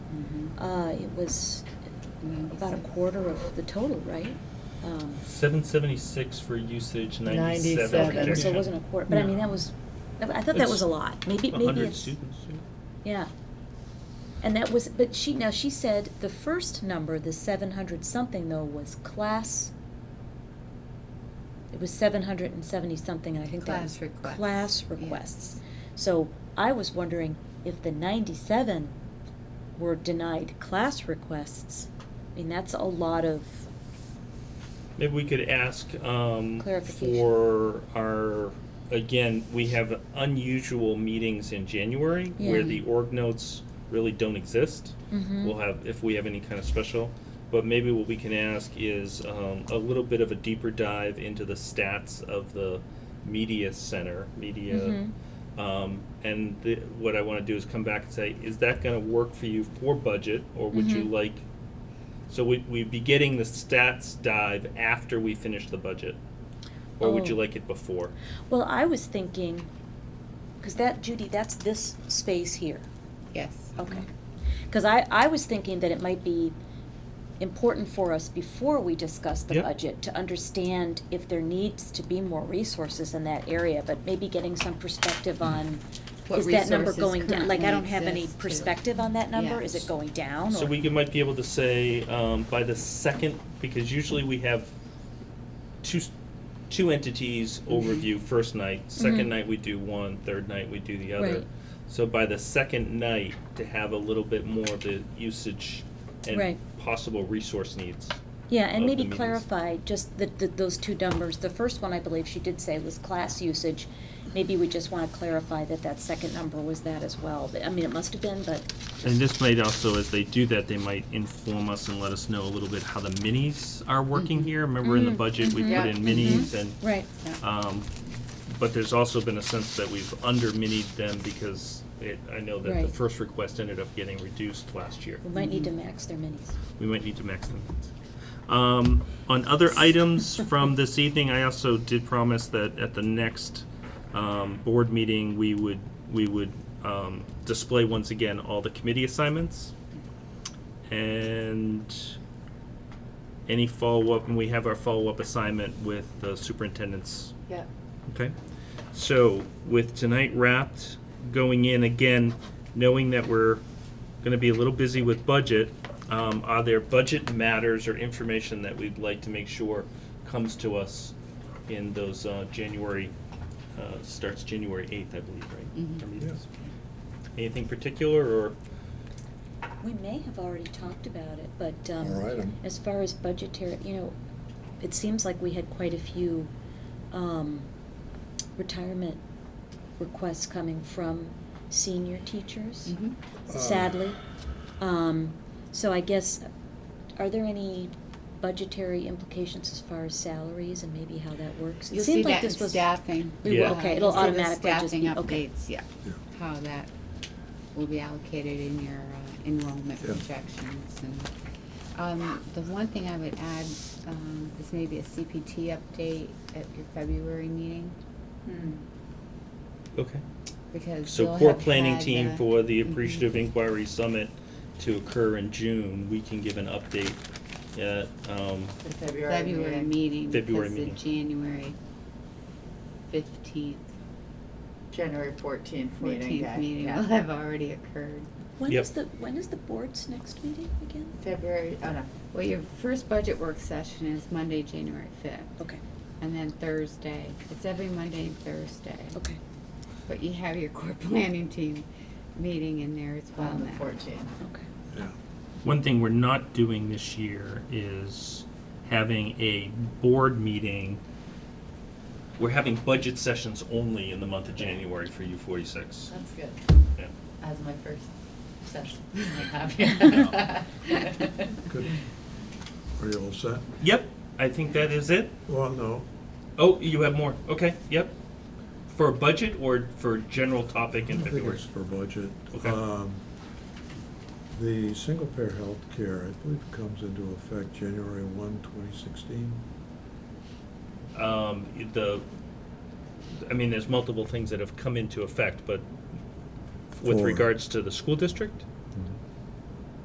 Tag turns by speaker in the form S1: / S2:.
S1: Uh, it was about a quarter of the total, right? Um,
S2: Seven seventy-six for usage, ninety-seven
S3: 97.
S1: Okay, so
S2: rejection.
S1: it wasn't a quarter, but I mean,
S3: No.
S1: that was, I thought that was a
S2: It's
S1: lot, maybe,
S2: A
S1: maybe
S2: hundred
S1: it's,
S2: students, yeah.
S1: yeah. And that was, but she, now she said the first number, the seven hundred something though, was class. It was seven hundred and seventy something, and I think that was.
S3: Class requests,
S1: Class
S3: yeah.
S1: requests. So I was wondering if the ninety-seven were denied class requests, I mean, that's a lot of,
S2: Maybe we could ask um,
S1: Clarification.
S2: for our, again, we have unusual meetings in January where
S1: Yeah.
S2: the org notes really don't exist.
S3: Mm-hmm.
S1: Mhm.
S2: We'll have, if we have any kind of special, but maybe what we can ask is um, a little bit of a deeper dive into the stats of the media center, media.
S1: Mm-hmm.
S2: Um, and the, what I want to do is come back and say, is that going to work for you for budget, or would you
S1: Mhm.
S2: like so we, we'd be getting the stats dive after we finish the budget? Or would you
S1: Oh.
S2: like it before?
S1: well, I was thinking, cause that, Judy, that's this space here.
S3: Yes.
S1: Okay. Because I, I was thinking that it might be important for us before we discuss the
S2: Yep.
S1: budget to understand if there needs to be more resources in that area, but maybe getting some perspective on,
S3: What
S1: is that number
S3: resources
S1: going down? Like, I don't
S3: currently
S1: have any
S3: exist to-
S1: perspective on that number,
S3: Yeah.
S1: is it going down?
S2: So
S1: or-
S2: we could- might be able to say, um, by the second, because usually we have two, s- two entities
S1: Mm-hmm.
S2: overview first night,
S1: Mhm.
S2: second night we do one, third night we do the other.
S1: Right.
S2: So by the second night, to have a little bit more of the usage and
S1: Right.
S2: possible resource needs.
S1: Yeah,
S2: of
S1: and
S2: the
S1: maybe
S2: meetings.
S1: clarify just the, the, those two numbers, the first one I believe she did say was class usage. Maybe we just wanna clarify that that second number was that as well, I mean, it must have been, but,
S2: And this might also, as they do that, they might inform us and let us know a little bit how the minis are working here. Remember in the
S1: Mm,
S2: budget, we
S1: mhm.
S2: put
S3: mm-hmm. Yeah,
S2: in minis and,
S1: right,
S2: um, but there's also been a sense that we've under-minied them because it, I know that the
S1: Right.
S2: first request ended up getting reduced last year.
S1: we might need to max their minis.
S2: We might need to max them. Um, on other items from this evening, I also did promise that at the next, um, board meeting, we would, we would, um, display once again all the committee assignments. And any follow-up, and we have our follow-up assignment with the superintendent's
S3: Yep.
S2: Okay. So with tonight wrapped, going in again, knowing that we're going to be a little busy with budget, um, are there budget matters or information that we'd like to make sure comes to us in those uh, January, uh, starts January 8th, I believe, right? Our meetings? Anything particular or?
S1: We may have already talked about it, but,
S4: All
S1: um,
S4: right, um,
S1: as far as budgetary, you know, it seems like we had quite a few, um, retirement requests coming from senior teachers,
S3: Mhm.
S4: Uh,
S1: sadly. Um, so I guess, are there any budgetary implications as far as salaries and maybe how that works? It
S3: You'll
S1: seemed
S3: see
S1: like
S3: that in
S1: this was
S3: staffing.
S1: We will,
S2: Yeah.
S1: okay,
S3: Uh,
S1: it'll
S3: you'll see the
S1: automatically just be, okay.
S3: Staffing updates, yeah,
S4: Yeah.
S3: how that will be allocated in your uh, enrollment
S4: Yeah.
S3: projections and. Um, the one thing I would add, um, is maybe a CPT update at your February meeting,
S5: Hmm.
S2: Okay.
S3: because
S2: So
S3: you'll
S2: core
S3: have
S2: planning
S3: had
S2: team
S3: the-
S2: for the
S3: Mhm.
S1: Mm-hmm.
S2: Appreciative Inquiry Summit to occur in June, we can give an update at, um,
S5: The February.
S3: February meeting,
S2: February
S3: because the
S2: meeting.
S3: January fifteenth,
S5: January fourteenth meeting
S3: fourteenth
S5: day.
S3: meeting will
S5: yeah.
S3: have already occurred.
S1: When
S2: Yep.
S1: is the, when is the board's next meeting again?
S5: February, oh no,
S3: Well, your first budget work session is Monday, January fifth,
S1: Okay,
S3: and then Thursday. It's every Monday and Thursday.
S1: okay.
S3: But you have your core planning team meeting in there as well
S5: on the
S3: now.
S5: fourteenth.
S1: Okay.
S4: Yeah.
S2: One thing we're not doing this year is having a board meeting. We're having budget sessions only in the month of January for U forty-six.
S5: That's good.
S2: Yeah.
S5: That's my first session.
S4: Good. Are you all set?
S2: Yep, I think that is it.
S4: Well, no,
S2: Oh, you have more, okay, yep. For a budget or for a general topic
S4: I
S2: in
S4: think
S2: February?
S4: it's for budget.
S2: Okay.
S4: Um, The single-payer health care, I believe, comes into effect January 1, 2016.
S2: Um, the, I mean, there's multiple things that have come into effect, but with
S4: For-
S2: regards to the school district?
S4: Mhm.